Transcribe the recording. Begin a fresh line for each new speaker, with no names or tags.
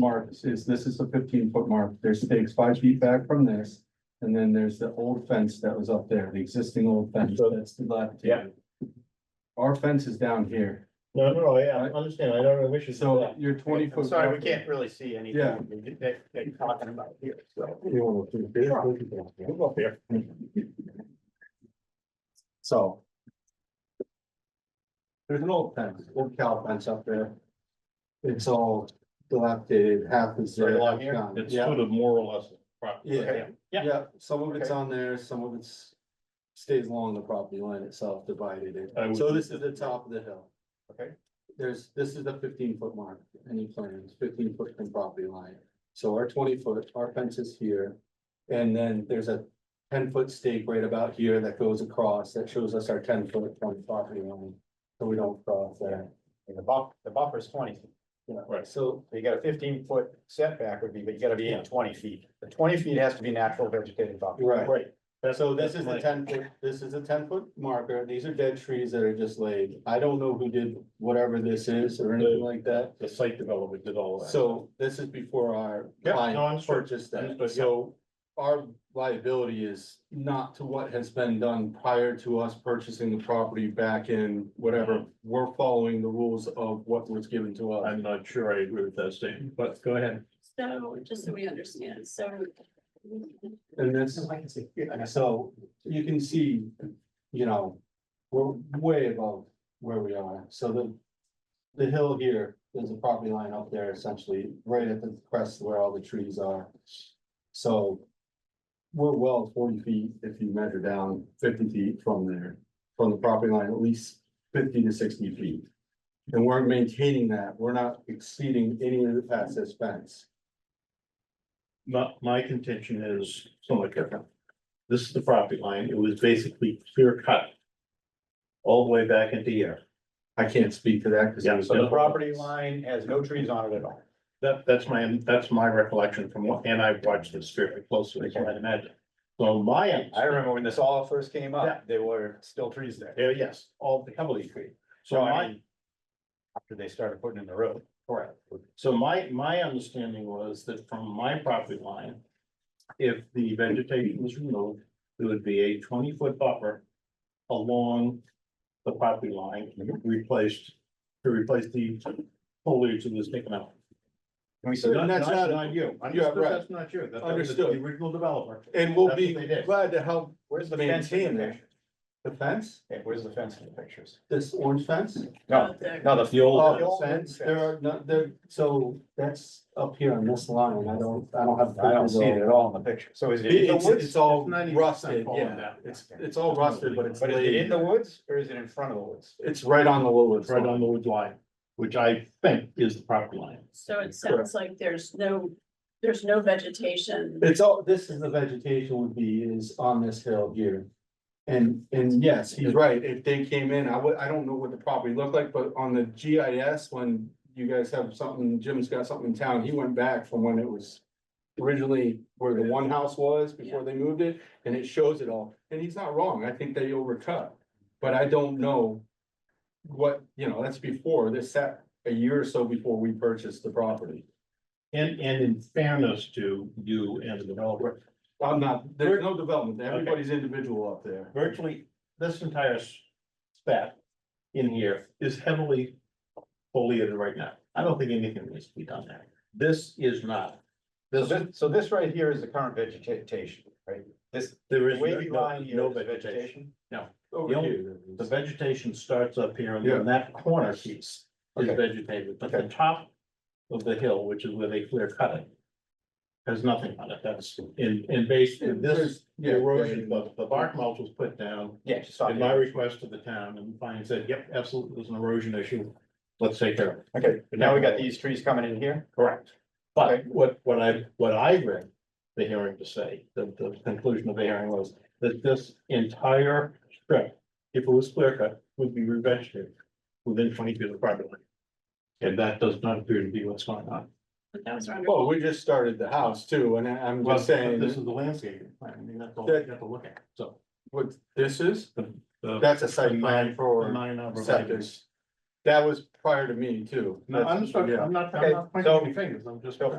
marks is this is a fifteen foot mark. There's stakes five feet back from this. And then there's the old fence that was up there, the existing old fence
So-
that's dilapidated. Our fence is down here,
No, no, no, yeah, I understand, I don't know which is.
so your twenty foot.
Sorry, we can't really see anything
Yeah.
that, that you're talking about here, so.
Move up here.
So. There's an old fence, old cow fence up there. It's all dilapidated, half is there.
Right along
half
here?
gone.
It's
Yeah,
sort of more or less. property.
yeah,
Yeah.
yeah, some of it's
Okay.
on there, some of it's stays along the property line itself divided
I
it.
would-
So this is the top of the hill.
Okay.
There's, this is the fifteen foot mark, any plans, fifteen foot from property line. So our twenty foot, our fence is here. And then there's a ten foot stake right about here that goes across, that shows us our ten foot from property line. So we don't cross there.
And the buff, the buffer's twenty, feet.
Yeah.
Right.
So
so you got a fifteen foot setback would be, but you gotta be in twenty feet. The twenty feet has to be natural vegetated buffer.
Right.
Right. That's-
So this
that's
is the
my-
ten foot, this is a ten foot marker, these are dead trees that are just laid, I don't know who did whatever this is or anything like that.
The site development did all that.
So this is before our
Yeah, no,
client
understood,
purchased that,
understood, yeah.
so our liability is not to what has been done prior to us purchasing the property back in whatever.
Mm-hmm.
We're following the rules of what was given to us.
I'm not sure I agree with that statement, but go ahead.
So, just so we understand, so.
And that's, so you can see, you know, we're way above where we are, so the. The hill here, there's a property line up there essentially, right at the crest where all the trees are. So. We're well forty feet if you measure down fifty feet from there, from the property line, at least fifty to sixty feet. And we're maintaining that, we're not exceeding any of the access fence.
My, my contention is somewhat different. This is the property line, it was basically clear cut. All the way back into here.
I can't speak to that because.
Yeah,
So the property line has no trees on it at all.
That, that's my, that's my recollection from what, and I've watched this very closely, as you might imagine. So my.
I remember when this all first came
Yeah.
up, there were still trees there
Yeah, uh, yes, all the heavily treated. So
No, I
my,
mean- after they started putting in the road.
correct. So my, my understanding was that from my property line. If the vegetation was removed, there would be a twenty foot buffer along the property line replaced, to replace the foliage that was taken out.
Can we see
So
that?
then that's not-
you.
Yeah,
Understood,
right.
that's not you. That- that was
Understood.
The original developer.
And we'll
That's
be
what they did.
glad to help
Where's the fence in
maintain
the
that.
picture?
The fence,
Yeah, where's the fence in the pictures?
this orange fence?
No,
the-
no, the.
The old,
Oh, fence, there are, no, there, so that's up here on this line, I don't, I don't have.
I don't see it at all in the picture. So is it in the
It's,
woods?
it's all
It's 90%
rusted,
fallen
yeah,
down.
it's, it's all rusted, but it's
But is it in
laid,
the woods or is it in front of the woods?
it's right on the lower.
right on the wood line, which I think is the property line.
So it sounds like there's no, there's no vegetation.
It's all, this is the vegetation would be is on this hill here. And, and yes, he's right, if they came in, I would, I don't know what the property looked like, but on the GIS, when you guys have something, Jim's got something in town, he went back from when it was. Originally where the one house was before they moved it, and it shows it all, and he's not wrong, I think they overcut, but I don't know. What, you know, that's before, this set a year or so before we purchased the property.
And, and in fairness to you and the developer,
I'm not, there's no development, everybody's individual up there.
virtually this entire s- spat in here is heavily foliated right now. I don't think anything needs to be done there. This is not.
So
This,
this, so this right here is the current vegetation, right? This
there is
wavy
no,
line here
no
is
vegetation.
vegetation.
Over
The only-
here.
The vegetation starts up here and then that corner piece is
Okay.
vegetated, but the top of the hill, which is where they clear cut it. Has nothing on it. That's in, in base, in this
Yeah,
erosion,
yeah,
the, the bark mulch was put down.
Yeah, just on
At my
here.
request to the town, and Fine said, yep, absolutely, there's an erosion issue, let's take care of it.
Okay, now we got these trees coming in here.
Correct.
Okay.
But what, what I, what I read the hearing to say, the, the conclusion of the hearing was that this entire strip, if it was clear cut, would be revegetated within twenty feet of the property line. And that does not appear to be what's going on.
But that was wonderful.
Well, we just started the house too, and I- I'm
Well,
just saying,
This is the landscaping plan, I mean, that's all you have to look at, so.
what this is,
the-
that's a site
the
plan
nine- the
for
nine number of
septic.
acres.
That was prior to me too.
No, I'm sorry, I'm not, I'm
Okay,
not pointing
so-
any fingers, I'm just.
so